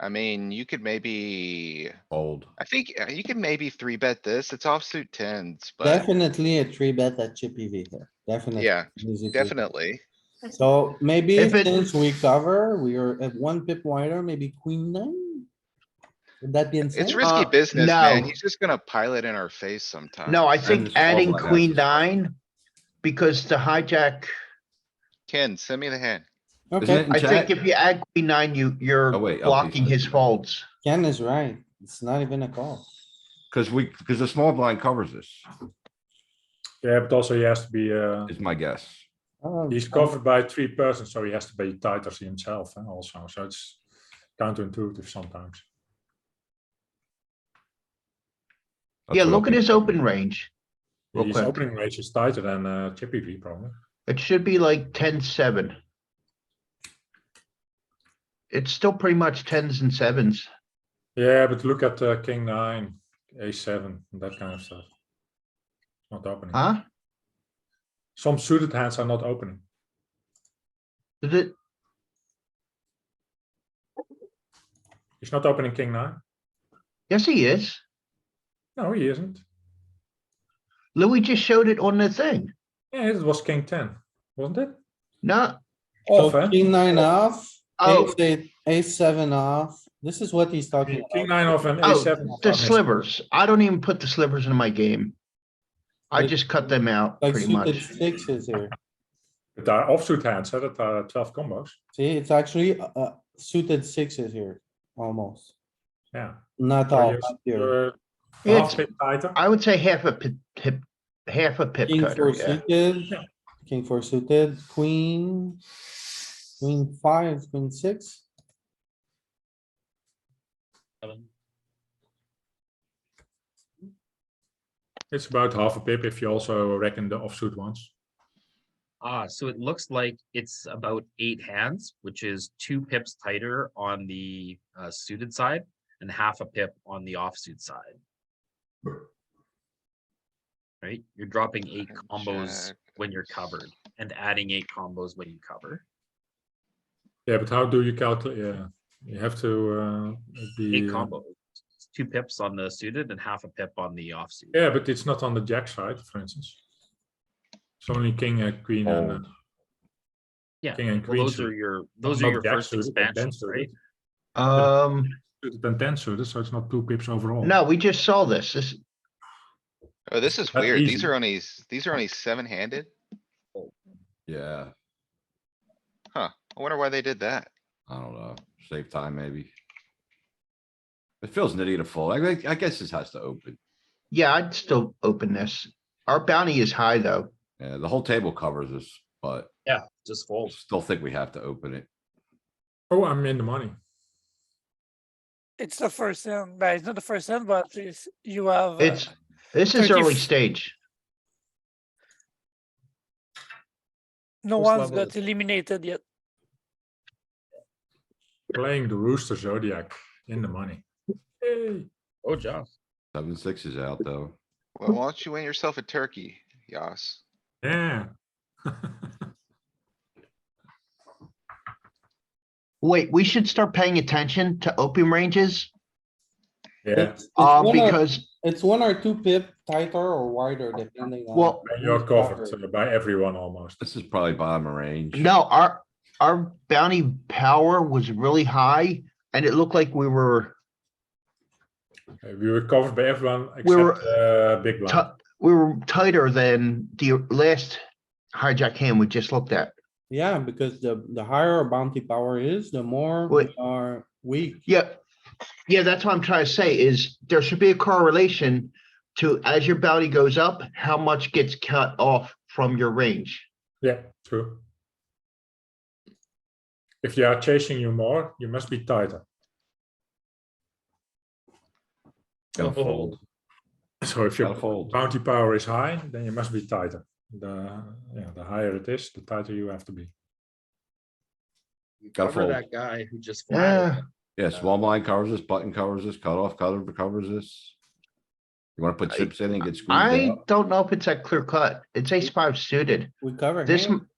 I mean, you could maybe, Old. I think uh, you can maybe three bet this. It's offsuit tens, but Definitely a three bet at Chippy V here, definitely. yeah, easy to- definitely. So maybe If it- since we cover, we are at one pip wider, maybe queen nine? Would that be insane? It's risky Uh, business, man. no. He's just gonna pilot in our face sometime. No, I And think adding swallow that. queen nine, because to hijack, Ken, send me the hand. Isn't Okay, it in I think chat? if you add queen nine, you, you're Oh, wait, LP blocking said his that. folds. Ken is right. It's not even a call. Cause we, cause the small blind covers this, Yeah, but also he has to be. Uh, is my guess. Oh, he's covered by three persons, so he has to be tighter himself. eh, also, so it's counterintuitive sometimes. That's Yeah, what look at LP his said. open range. Real His quick. opening range is tighter than uh, Chippy V, probably. It should be like ten, seven. It's still pretty much tens and sevens. Yeah, but look at uh, King nine, A seven, and that kind of stuff. Not opening. Huh? Some suited hands are not opening. Is it? He's not opening King nine. Yes, he is. No, he isn't. Louis just showed it on the thing. Yeah, it was King ten, wasn't it? No, Off, So eh? King oh, nine off, oh, ace eight, ace seven off. This is what he's talking King about. nine off and A Oh, seven. the slivers. I don't even put the slivers in my game. I Like- just cut them out Like pretty suited much. sixes here. But there are offsuit hands, eh, that are twelve combos. See, it's actually uh, uh, suited sixes here, almost. Yeah. Not So all you're- but here. you're Yeah, it's- half bit tighter. I would say half a pip, pip- half a pip King four cutter, yeah. suited, Yeah. king four suited, queen, queen five, queen six. It's about half a pip if you also reckon the offsuit ones. Ah, so it looks like it's about eight hands, which is two pips tighter on the uh, suited side and half a pip on the offsuit side. Right? You're dropping eight Fucking combos jack. when you're covered and adding eight combos when you cover. Yeah, but how do you calculate? Yeah, you have to uh, be. Eight uh, combos. It's Two pips on the suited and half a pip on the offsuit. Yeah, but it's not on the jack side, for instance. It's only king, uh, queen, and uh, Yeah, king and Well, queen. those are suited. your, those are Not your jack first suited, but then expansions, suited. right? Um, Suited and ten suited, so it's not two pips overall. no, we just saw this. This, Oh, this is That's weird. These easy. are only, s- these are only seven handed. Yeah, I wonder why they did that. I don't know. Save time, maybe. It feels nitty to fold. I, think- I guess this has to open. yeah, I'd still open this. Our bounty is high, though. Yeah, the whole table covers this, but Yeah, just fold. still think we have to open it. Oh, I'm in the money. It's the first hand, but it's not the first hand, but it's, you have. uh, It's, this is 30 early f- stage. No first one's level got is- eliminated yet. Playing the rooster zodiac in the money. Hey, Oh, Josh. Seven, six is out though. Well, why don't you win yourself a turkey, Yas? yeah. Wait, we should start paying attention to opium ranges, Yeah, It's- it's uh, one or- because, It's one or two pip tighter or wider depending on. well, and you're covered uh, by everyone almost. This is probably bottom of range. no, our, our bounty power was really high and it looked like we were Uh, We were covered by everyone We were- except uh, big blind. ti- we were tighter than the last hijack hand we just looked at. Yeah, because the, the higher our bounty power is, the more Wait. we are weak. Yeah, yeah, that's what I'm trying to say is there should be a correlation to as your bounty goes up, how much gets cut off from your range. Yeah, true. If they are chasing you more, you must be tighter. Gotta fold, So if gotta your fold. bounty power is high, then you must be tighter. The, yeah, the higher it is, the tighter you have to be. You Gotta cover fold. that guy who just. Yeah. flattened. Yeah, small blind covers this, button covers this, cutoff cover covers this. You wanna put I- chips in and get squeezed I out? don't know if it's that clear cut. It's ace five suited. We cover This, him. m-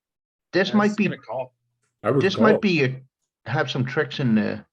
this Yeah, might it's be, gonna Call. I would this call. might be, a- have some tricks in there.